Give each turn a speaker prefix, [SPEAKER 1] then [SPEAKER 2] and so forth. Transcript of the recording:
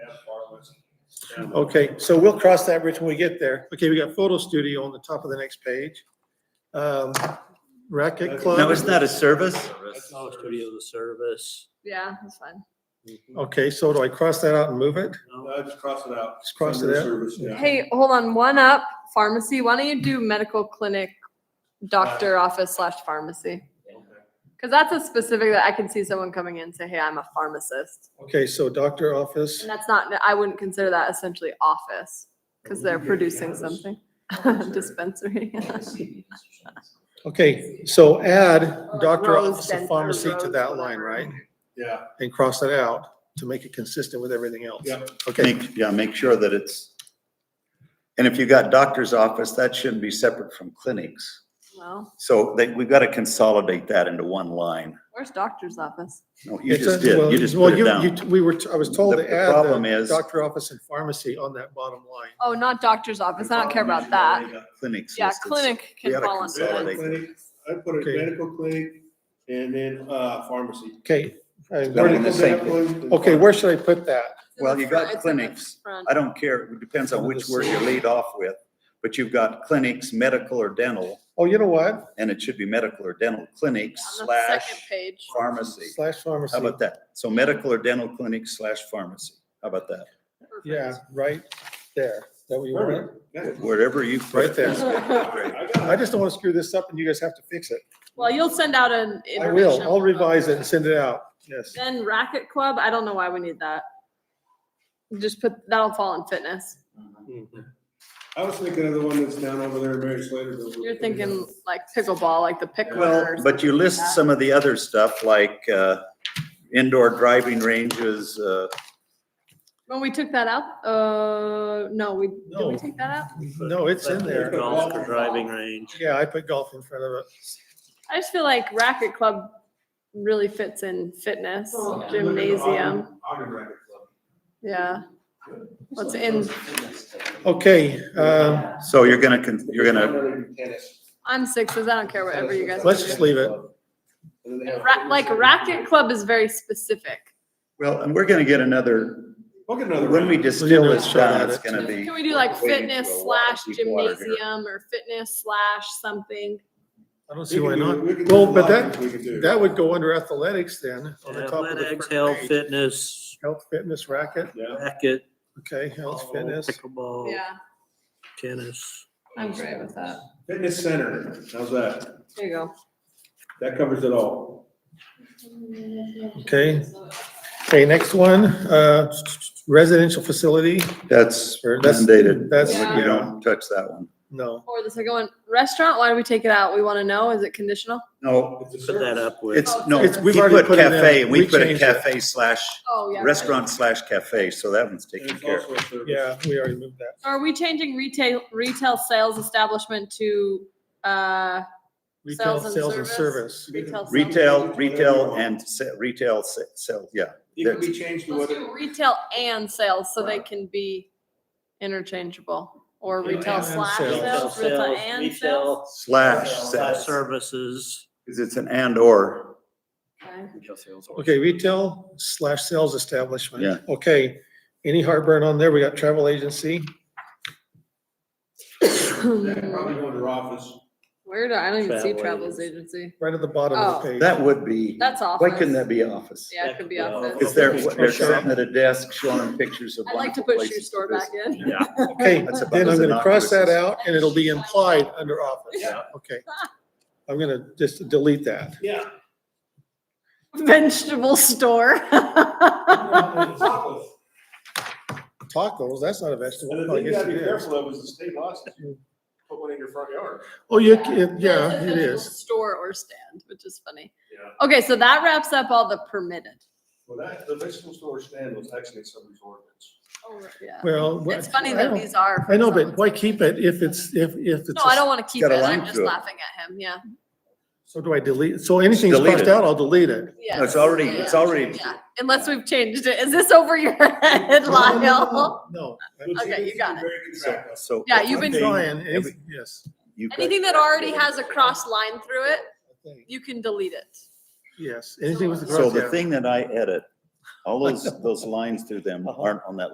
[SPEAKER 1] Okay, so we'll cross that bridge when we get there. Okay, we got photo studio on the top of the next page. Um, Racket club.
[SPEAKER 2] Now, isn't that a service?
[SPEAKER 3] That's not a studio of service.
[SPEAKER 4] Yeah, that's fine.
[SPEAKER 1] Okay, so do I cross that out and move it?
[SPEAKER 5] No, just cross it out.
[SPEAKER 1] Just cross it
[SPEAKER 5] Under
[SPEAKER 1] out?
[SPEAKER 5] service, yeah.
[SPEAKER 4] Hey, hold on, one up, pharmacy. Why don't you do medical clinic, doctor
[SPEAKER 2] Uh,
[SPEAKER 4] office slash pharmacy? Cause that's a specific that I can see someone coming in and say, hey, I'm a pharmacist.
[SPEAKER 1] Okay, so doctor office.
[SPEAKER 4] And that's not, I wouldn't consider that essentially office, cause they're producing something. Dispensary.
[SPEAKER 1] Okay, so add
[SPEAKER 4] like
[SPEAKER 1] doctor
[SPEAKER 4] Rose
[SPEAKER 1] office of
[SPEAKER 4] Center,
[SPEAKER 1] pharmacy to
[SPEAKER 4] Rose
[SPEAKER 1] that line,
[SPEAKER 4] whatever.
[SPEAKER 1] right?
[SPEAKER 5] Yeah,
[SPEAKER 1] And cross that out to make it consistent with everything else.
[SPEAKER 5] Yep.
[SPEAKER 1] Okay,
[SPEAKER 2] Make, yeah, make sure that it's, and if you got doctor's office, that shouldn't be separate from clinics.
[SPEAKER 4] Well,
[SPEAKER 2] So they, we've got to consolidate that into one line.
[SPEAKER 4] where's doctor's office?
[SPEAKER 2] No, you
[SPEAKER 1] It's a-
[SPEAKER 2] just did,
[SPEAKER 1] well,
[SPEAKER 2] you just
[SPEAKER 1] well,
[SPEAKER 2] put it down.
[SPEAKER 1] you- We were, I was told to
[SPEAKER 2] The- the
[SPEAKER 1] add
[SPEAKER 2] problem
[SPEAKER 1] the
[SPEAKER 2] is-
[SPEAKER 1] doctor office and pharmacy on that bottom line.
[SPEAKER 4] Oh, not doctor's office. I don't care about that.
[SPEAKER 2] uh, Clinics.
[SPEAKER 4] Yeah,
[SPEAKER 2] listed.
[SPEAKER 4] clinic
[SPEAKER 2] we
[SPEAKER 4] can
[SPEAKER 2] gotta
[SPEAKER 4] fall under
[SPEAKER 2] consolidate
[SPEAKER 4] that.
[SPEAKER 5] that. I put
[SPEAKER 1] Okay.
[SPEAKER 5] it medical clinic and then, uh, pharmacy.
[SPEAKER 1] Okay. uh,
[SPEAKER 2] That one
[SPEAKER 1] where-
[SPEAKER 2] in the same
[SPEAKER 5] Medical, medical,
[SPEAKER 1] Okay, where should I put that?
[SPEAKER 2] Well, you got
[SPEAKER 4] It's in the
[SPEAKER 2] clinics.
[SPEAKER 4] front.
[SPEAKER 2] I don't care, it depends on which word you lead off with, but you've got clinics, medical or dental,
[SPEAKER 1] Oh, you know what?
[SPEAKER 2] and it should be medical or dental clinics
[SPEAKER 4] On the second
[SPEAKER 2] slash
[SPEAKER 4] page.
[SPEAKER 2] pharmacy.
[SPEAKER 1] Slash
[SPEAKER 2] How
[SPEAKER 1] pharmacy.
[SPEAKER 2] about that? So medical or dental clinic slash pharmacy. How about that?
[SPEAKER 1] Yeah, right there. Is that what you want?
[SPEAKER 5] Perfect. Yeah.
[SPEAKER 2] Wherever you. put
[SPEAKER 1] Right there.
[SPEAKER 2] it. Great.
[SPEAKER 5] I got
[SPEAKER 1] I just don't want to screw this up and you guys have to fix it.
[SPEAKER 4] Well, you'll send out an.
[SPEAKER 1] I will.
[SPEAKER 4] information
[SPEAKER 1] I'll
[SPEAKER 4] about
[SPEAKER 1] revise it and send it out. Yes.
[SPEAKER 4] Then racket club, I don't know why we need that. Just put, that'll fall in fitness.
[SPEAKER 1] Mm-hmm.
[SPEAKER 5] I was thinking of the one that's down over there, in Mary Slater. building.
[SPEAKER 4] You're thinking like pickleball, like the pick one
[SPEAKER 2] Well,
[SPEAKER 4] or
[SPEAKER 2] but you
[SPEAKER 4] something like
[SPEAKER 2] list
[SPEAKER 4] that.
[SPEAKER 2] some of the other stuff like uh, indoor driving ranges, uh,
[SPEAKER 4] When we took that out, uh, no, we, did we
[SPEAKER 1] No.
[SPEAKER 4] take that out?
[SPEAKER 1] No, it's in there.
[SPEAKER 3] Golf or driving range.
[SPEAKER 1] Yeah, I put golf in front of it.
[SPEAKER 4] I just feel like racket club really fits in fitness,
[SPEAKER 5] Look at the
[SPEAKER 4] gymnasium,
[SPEAKER 5] Ogden- Ogden Racket Club.
[SPEAKER 4] yeah. What's in,
[SPEAKER 1] Okay, um,
[SPEAKER 2] so you're gonna, con- you're gonna,
[SPEAKER 5] Tennis.
[SPEAKER 4] on sixes, I don't care whatever you guys.
[SPEAKER 1] Let's just leave it.
[SPEAKER 5] And then they have-
[SPEAKER 4] Ra- Like racket club is very specific.
[SPEAKER 2] well, and we're gonna get another,
[SPEAKER 5] We'll get another.
[SPEAKER 2] when we
[SPEAKER 5] round.
[SPEAKER 2] distill
[SPEAKER 1] Yeah,
[SPEAKER 2] this
[SPEAKER 1] let's try
[SPEAKER 2] down,
[SPEAKER 1] that.
[SPEAKER 2] it's gonna be.
[SPEAKER 4] Can we do like
[SPEAKER 2] we're wading
[SPEAKER 4] fitness
[SPEAKER 2] through a lot of
[SPEAKER 4] slash
[SPEAKER 2] deep water here.
[SPEAKER 4] gymnasium or fitness slash something?
[SPEAKER 1] I don't
[SPEAKER 5] We
[SPEAKER 1] see
[SPEAKER 5] can
[SPEAKER 1] why
[SPEAKER 5] do-
[SPEAKER 1] not.
[SPEAKER 5] we can do
[SPEAKER 1] Well,
[SPEAKER 5] a
[SPEAKER 1] but
[SPEAKER 5] lot
[SPEAKER 1] that,
[SPEAKER 5] we can do.
[SPEAKER 1] that would go under athletics then. on the top of the
[SPEAKER 3] Athletics,
[SPEAKER 1] front
[SPEAKER 3] health,
[SPEAKER 1] page.
[SPEAKER 3] fitness,
[SPEAKER 1] Health, fitness, racket.
[SPEAKER 5] Yeah.
[SPEAKER 3] racket,
[SPEAKER 1] Okay, health,
[SPEAKER 3] ball,
[SPEAKER 1] fitness.
[SPEAKER 3] pickleball, tennis.
[SPEAKER 4] I'm great with that.
[SPEAKER 5] Fitness center, how's that?
[SPEAKER 4] There you go.
[SPEAKER 5] That covers it all.
[SPEAKER 1] Okay. Okay, next one, uh, residential facility.
[SPEAKER 2] That's
[SPEAKER 1] Sure, that's-
[SPEAKER 2] mandated.
[SPEAKER 1] that's-
[SPEAKER 2] You don't touch that one.
[SPEAKER 1] No,
[SPEAKER 4] Or the second one, restaurant, why do we take it out? We want to know, is it conditional?
[SPEAKER 2] No,
[SPEAKER 5] It's a
[SPEAKER 3] Put that
[SPEAKER 5] service.
[SPEAKER 3] up with.
[SPEAKER 2] it's, no,
[SPEAKER 1] It's- we've
[SPEAKER 2] he
[SPEAKER 1] already
[SPEAKER 2] put
[SPEAKER 1] put it in.
[SPEAKER 2] cafe, and
[SPEAKER 1] We
[SPEAKER 2] we put a
[SPEAKER 1] changed it.
[SPEAKER 2] cafe slash
[SPEAKER 4] Oh, yeah.
[SPEAKER 2] restaurant slash cafe, so that one's
[SPEAKER 5] And
[SPEAKER 2] taken
[SPEAKER 5] it's
[SPEAKER 2] care of.
[SPEAKER 5] also a service.
[SPEAKER 1] yeah, we already moved that.
[SPEAKER 4] Are we changing retail, retail sales establishment to, uh,
[SPEAKER 1] Retail,
[SPEAKER 4] Sales and
[SPEAKER 1] sales and
[SPEAKER 4] service.
[SPEAKER 1] service.
[SPEAKER 4] retail? sales?
[SPEAKER 2] Retail, retail and se- retail se- sell, yeah.
[SPEAKER 5] It can be changed to
[SPEAKER 4] Let's
[SPEAKER 5] whatever.
[SPEAKER 4] do retail and sales, so they can be interchangeable, or retail
[SPEAKER 1] and
[SPEAKER 4] slash
[SPEAKER 1] sales.
[SPEAKER 4] sales, retail and sales.
[SPEAKER 2] Slash,
[SPEAKER 3] Retail
[SPEAKER 2] sales,
[SPEAKER 3] services.
[SPEAKER 2] 'cause it's an and or.
[SPEAKER 4] Okay.
[SPEAKER 1] Okay, retail slash sales establishment.
[SPEAKER 2] Yeah.
[SPEAKER 1] Okay, any heartburn on there? We got travel agency.
[SPEAKER 5] That Probably go under office.
[SPEAKER 4] Where do, I don't even see
[SPEAKER 3] Travel
[SPEAKER 4] travels
[SPEAKER 3] agency.
[SPEAKER 4] agency.
[SPEAKER 1] Right at the bottom of the
[SPEAKER 4] Oh.
[SPEAKER 1] page.
[SPEAKER 2] That would be,
[SPEAKER 4] That's
[SPEAKER 2] why
[SPEAKER 4] office.
[SPEAKER 2] couldn't that be office?
[SPEAKER 4] Yeah, it could be
[SPEAKER 3] Yeah.
[SPEAKER 4] office.
[SPEAKER 2] Is there,
[SPEAKER 1] Office.
[SPEAKER 2] they're sitting at a desk showing them pictures of
[SPEAKER 4] I'd like to
[SPEAKER 2] wonderful
[SPEAKER 4] put shoe
[SPEAKER 2] places.
[SPEAKER 4] store
[SPEAKER 2] to
[SPEAKER 4] back
[SPEAKER 2] visit.
[SPEAKER 4] in.
[SPEAKER 3] Yeah.
[SPEAKER 1] Okay,
[SPEAKER 2] That's about
[SPEAKER 1] then I'm
[SPEAKER 2] as
[SPEAKER 1] gonna cross that
[SPEAKER 2] innocuous
[SPEAKER 1] out and it'll be implied under office.
[SPEAKER 3] Yeah.
[SPEAKER 1] Okay. I'm gonna just delete that.
[SPEAKER 5] Yeah.
[SPEAKER 4] Vegetable store.
[SPEAKER 5] Office.
[SPEAKER 1] Tacos, that's not a vegetable.
[SPEAKER 5] And the
[SPEAKER 1] Well, I
[SPEAKER 5] thing you
[SPEAKER 1] guess
[SPEAKER 5] gotta be
[SPEAKER 1] it is.
[SPEAKER 5] careful of is the state law says you put one in your front yard.
[SPEAKER 1] Oh, you, can- yeah, it
[SPEAKER 4] Vegetable
[SPEAKER 1] is.
[SPEAKER 4] Store or stand, which is funny.
[SPEAKER 5] Yeah.
[SPEAKER 4] Okay, so that wraps up all the permitted.
[SPEAKER 5] Well, that, the vegetable store stand was actually in somebody's ordinance.
[SPEAKER 4] Yeah.
[SPEAKER 1] Well. what-
[SPEAKER 4] It's funny
[SPEAKER 1] I
[SPEAKER 4] that
[SPEAKER 1] don't-
[SPEAKER 4] these are.
[SPEAKER 1] I know, but
[SPEAKER 4] someone's-
[SPEAKER 1] why keep it if it's, if, if it's,
[SPEAKER 4] No, I
[SPEAKER 1] a-
[SPEAKER 4] don't want to keep it.
[SPEAKER 2] Got a line
[SPEAKER 4] I'm just
[SPEAKER 2] through it.
[SPEAKER 4] laughing at him. Yeah.
[SPEAKER 1] so do I delete, so anything that's
[SPEAKER 2] Delete
[SPEAKER 1] crossed
[SPEAKER 2] it.
[SPEAKER 1] out, I'll delete it.
[SPEAKER 2] No, It's already, it's already,
[SPEAKER 4] Yeah, unless we've changed it. Is this over your head,
[SPEAKER 1] No, no, no, no,
[SPEAKER 4] Lyle?
[SPEAKER 1] No.
[SPEAKER 4] Okay, you got it.
[SPEAKER 5] Very good track of.
[SPEAKER 2] so.
[SPEAKER 4] Yeah, you've
[SPEAKER 1] I'm
[SPEAKER 4] been-
[SPEAKER 1] trying, it's- yes.
[SPEAKER 2] you've got-
[SPEAKER 4] Anything that already has a cross line through it,
[SPEAKER 1] I think.
[SPEAKER 4] you can delete it.
[SPEAKER 1] Yes, anything with the
[SPEAKER 2] So
[SPEAKER 1] cross
[SPEAKER 2] the
[SPEAKER 1] out.
[SPEAKER 4] Uh-huh.
[SPEAKER 2] thing that I edit, all those, those lines through them aren't on that